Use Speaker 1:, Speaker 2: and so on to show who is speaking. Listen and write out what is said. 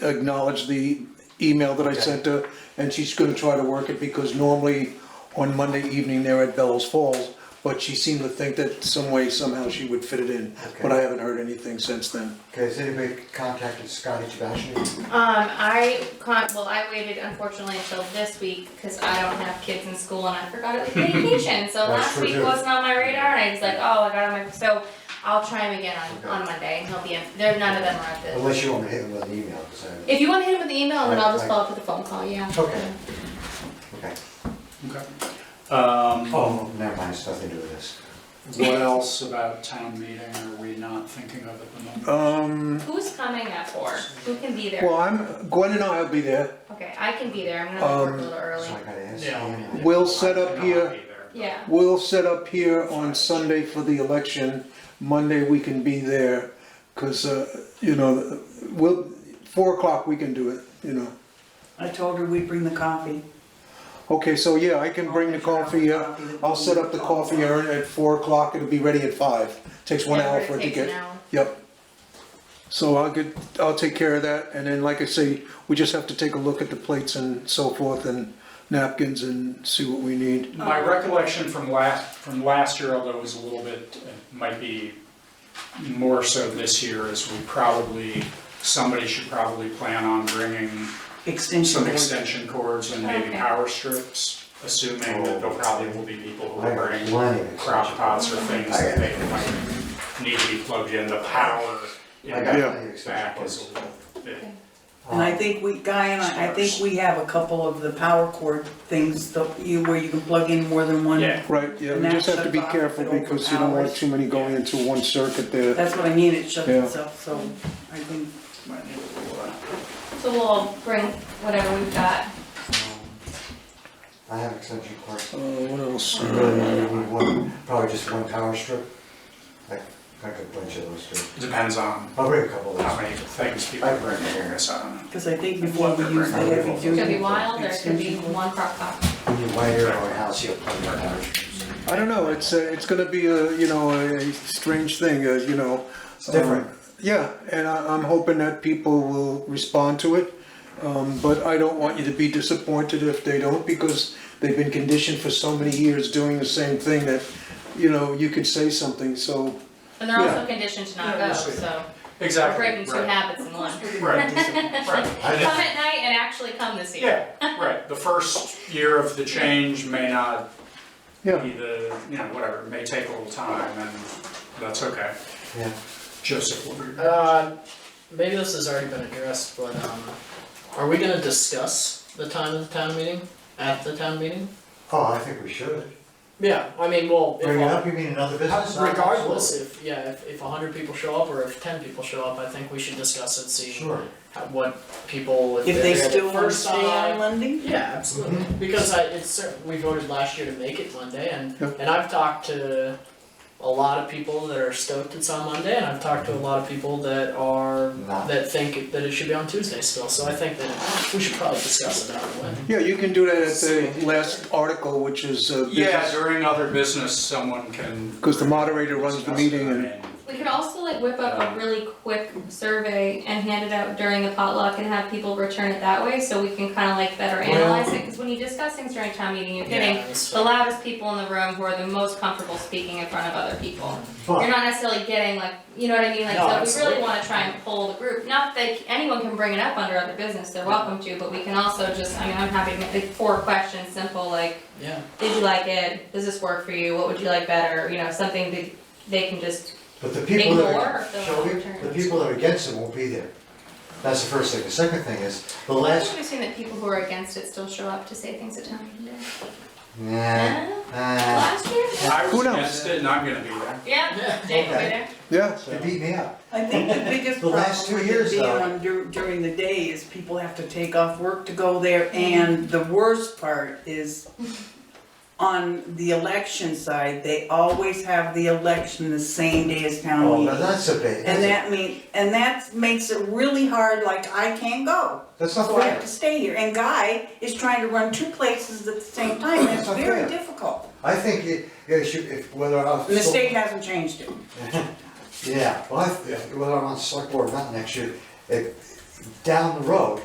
Speaker 1: acknowledged the email that I sent her, and she's gonna try to work it, because normally on Monday evening, they're at Bellows Falls, but she seemed to think that some way, somehow she would fit it in, but
Speaker 2: Okay.
Speaker 1: I haven't heard anything since then.
Speaker 2: Okay, has anybody contacted Scotty Sebastian?
Speaker 3: Um, I con- well, I waited unfortunately until this week because I don't have kids in school and I forgot it was vacation. So
Speaker 2: That's
Speaker 3: last
Speaker 2: true,
Speaker 3: week
Speaker 2: too.
Speaker 3: wasn't on my radar, and I was like, oh, I got on my. So I'll try him again on, on Monday. He'll be in. There, none of them are at the.
Speaker 2: Unless you want me to hit him with an email, 'cause I-
Speaker 3: If you want to hit him with the email, then I'll just
Speaker 2: Right, right.
Speaker 3: follow up with a phone call. Yeah.
Speaker 2: Okay. okay.
Speaker 4: Um,
Speaker 2: Oh, never mind, it's nothing to do with this.
Speaker 4: what else about town meeting are we not thinking of at the moment?
Speaker 1: Um,
Speaker 3: Who's coming at four? Who can be there?
Speaker 1: well, I'm, Gwen and I'll be there,
Speaker 3: okay, I can be there. I'm gonna work
Speaker 1: Um,
Speaker 3: a little early.
Speaker 2: So I gotta ask
Speaker 4: Yeah.
Speaker 2: you anyway.
Speaker 1: we'll set up here.
Speaker 3: Yeah.
Speaker 1: We'll set up here on Sunday for the election. Monday, we can be there, because, you know, we'll, four o'clock, we can do it, you know.
Speaker 5: I told her we'd bring the coffee.
Speaker 1: Okay, so yeah, I can bring the coffee, uh, I'll set up the coffee urn at four o'clock, it'll be ready at five. Takes one
Speaker 3: Yeah,
Speaker 1: hour
Speaker 3: it
Speaker 1: for it to
Speaker 3: takes
Speaker 1: get.
Speaker 3: an hour.
Speaker 1: Yep. So I'll get, I'll take care of that, and then, like I say, we just have to take a look at the plates and so forth, and napkins, and see what we need.
Speaker 4: My recollection from last, from last year, although it was a little bit, it might be more so this year, is we probably, somebody should probably plan on bringing
Speaker 5: Extension.
Speaker 4: some
Speaker 5: cord.
Speaker 4: extension cords and maybe
Speaker 3: Okay.
Speaker 4: power strips, assuming that there probably will be people who
Speaker 2: Oh. I
Speaker 4: will
Speaker 2: got
Speaker 4: bring
Speaker 2: plenty of extension
Speaker 4: crop
Speaker 2: cords.
Speaker 4: pots or things that they might need to be plugged in, the power in
Speaker 2: I got
Speaker 4: the
Speaker 2: plenty of extension
Speaker 4: back
Speaker 2: cords.
Speaker 4: is a little bit.
Speaker 5: And I think we, Guy and I, I think we have a couple of the power cord things that you, where you can plug in more than one.
Speaker 4: Yeah.
Speaker 1: Right, yeah, we
Speaker 5: And
Speaker 1: just
Speaker 5: that
Speaker 1: have to be
Speaker 5: shuts off
Speaker 1: careful,
Speaker 5: if it
Speaker 1: because you don't want
Speaker 5: overpowers.
Speaker 1: too many going into one circuit there.
Speaker 5: That's what I mean, it shuts
Speaker 1: Yeah.
Speaker 5: itself, so I think.
Speaker 4: uh,
Speaker 3: So we'll bring whatever we've got.
Speaker 2: Um, I have extension cords.
Speaker 1: Uh, what else?
Speaker 2: You really only need one, probably just one power strip. I I got a bunch of those too.
Speaker 4: Depends on
Speaker 2: I'll bring a couple of
Speaker 4: how
Speaker 2: those.
Speaker 4: many things people bring, I guess, I don't know.
Speaker 5: Because I think before we use the heavy
Speaker 3: It could be
Speaker 5: duty.
Speaker 3: wild or it could be one crock pot.
Speaker 2: When you wire your own house, you'll plug your power strips.
Speaker 1: I don't know, it's, uh, it's gonna be a, you know, a a strange thing, uh, you know. It's
Speaker 2: different.
Speaker 1: Yeah, and I, I'm hoping that people will respond to it, um, but I don't want you to be disappointed if they don't, because they've been conditioned for so many years doing the same thing that, you know, you could say something, so,
Speaker 3: And they're
Speaker 1: Yeah.
Speaker 3: also conditioned to not
Speaker 4: Yeah,
Speaker 3: go,
Speaker 4: we'll see.
Speaker 3: so we're
Speaker 4: Exactly,
Speaker 3: breaking two
Speaker 4: right.
Speaker 3: habits in one.
Speaker 4: Right, right.
Speaker 3: Come at night and actually come this year.
Speaker 4: Yeah, right, the first year of the change may not be
Speaker 1: yeah.
Speaker 4: the, you know, whatever, it may take a little time, and that's okay.
Speaker 2: Yeah.
Speaker 4: Joseph, what were your-
Speaker 6: Uh, maybe this has already been addressed, but, um, are we gonna discuss the time of the town meeting, at the town meeting?
Speaker 2: Oh, I think we should.
Speaker 6: Yeah, I mean, well, if,
Speaker 2: Bring it up,
Speaker 6: a-
Speaker 2: you mean another business?
Speaker 6: regardless, if, yeah, if, if a hundred people show up, or if ten people show up, I think we should discuss it, see
Speaker 2: Sure.
Speaker 6: how- what people, if
Speaker 5: If they
Speaker 6: they're the
Speaker 5: still want to
Speaker 6: first
Speaker 5: stay
Speaker 6: time.
Speaker 5: on Monday?
Speaker 6: Yeah, absolutely,
Speaker 2: Mm-hmm.
Speaker 6: because I, it's certain, we voted last year to make it Monday, and,
Speaker 1: Yeah.
Speaker 6: and I've talked to a lot of people that are stoked it's on Monday, and I've talked to a lot of people that are,
Speaker 2: Not.
Speaker 6: that think it- that it should be on Tuesday still, so I think that we should probably discuss it out way.
Speaker 1: Yeah, you can do that at the last article, which is, uh,
Speaker 4: Yeah,
Speaker 1: business,
Speaker 4: during other business, someone can.
Speaker 1: because the moderator runs the
Speaker 4: discuss
Speaker 1: meeting
Speaker 4: it, I
Speaker 1: and.
Speaker 4: mean,
Speaker 3: We could also like whip up a really quick survey and hand it out during the potluck and have people return it that way, so we can kinda like better analyze it, cause when you discuss things during town meeting, you're getting
Speaker 6: Yeah, that's
Speaker 3: the
Speaker 6: fair.
Speaker 3: loudest people in the room who are the most comfortable speaking in front of other people. You're
Speaker 2: But,
Speaker 3: not necessarily getting like, you know what I mean, like, so
Speaker 6: No,
Speaker 3: we really
Speaker 6: absolutely.
Speaker 3: wanna try and pull the group, not that anyone can bring it up under other business, they're welcome to, but we can also just, I mean, I'm happy to make like four questions, simple, like,
Speaker 6: Yeah,
Speaker 3: did you like it? Does this work for you? What would you like better? You know, something that they can just.
Speaker 2: but the people that
Speaker 3: Ignore
Speaker 2: are,
Speaker 3: the
Speaker 2: shall we,
Speaker 3: returns.
Speaker 2: the people that are against it won't be there. That's the first thing. The second thing is, the
Speaker 3: I've
Speaker 2: last,
Speaker 3: always seen that people who are against it still show up to say things at town meeting.
Speaker 2: nah,
Speaker 3: Huh?
Speaker 2: nah,
Speaker 3: Last year?
Speaker 4: I
Speaker 1: Who
Speaker 4: was
Speaker 1: knows?
Speaker 4: against it, and I'm gonna be there.
Speaker 3: Yeah, Jake over
Speaker 2: Okay.
Speaker 3: there.
Speaker 1: Yeah,
Speaker 2: they beat me up.
Speaker 5: I think the biggest
Speaker 2: The
Speaker 5: problem
Speaker 2: last two
Speaker 5: with
Speaker 2: years,
Speaker 5: it being
Speaker 2: though.
Speaker 5: on dur- during the day is people have to take off work to go there. And the worst part is on the election side, they always have the election the same day as town
Speaker 2: Oh,
Speaker 5: meeting.
Speaker 2: now that's a bit,
Speaker 5: And
Speaker 2: that's,
Speaker 5: that mean, and that makes it really hard, like I can't go,
Speaker 2: that's not
Speaker 5: so I have
Speaker 2: fair.
Speaker 5: to stay here. And Guy is trying to run two places at the same time, it's
Speaker 2: That's
Speaker 5: very
Speaker 2: unfair.
Speaker 5: difficult.
Speaker 2: I think it, it should, if, whether I'm.
Speaker 5: And the state hasn't changed it.
Speaker 2: Yeah, well, I, whether I'm on select board or not next year, it, down the road,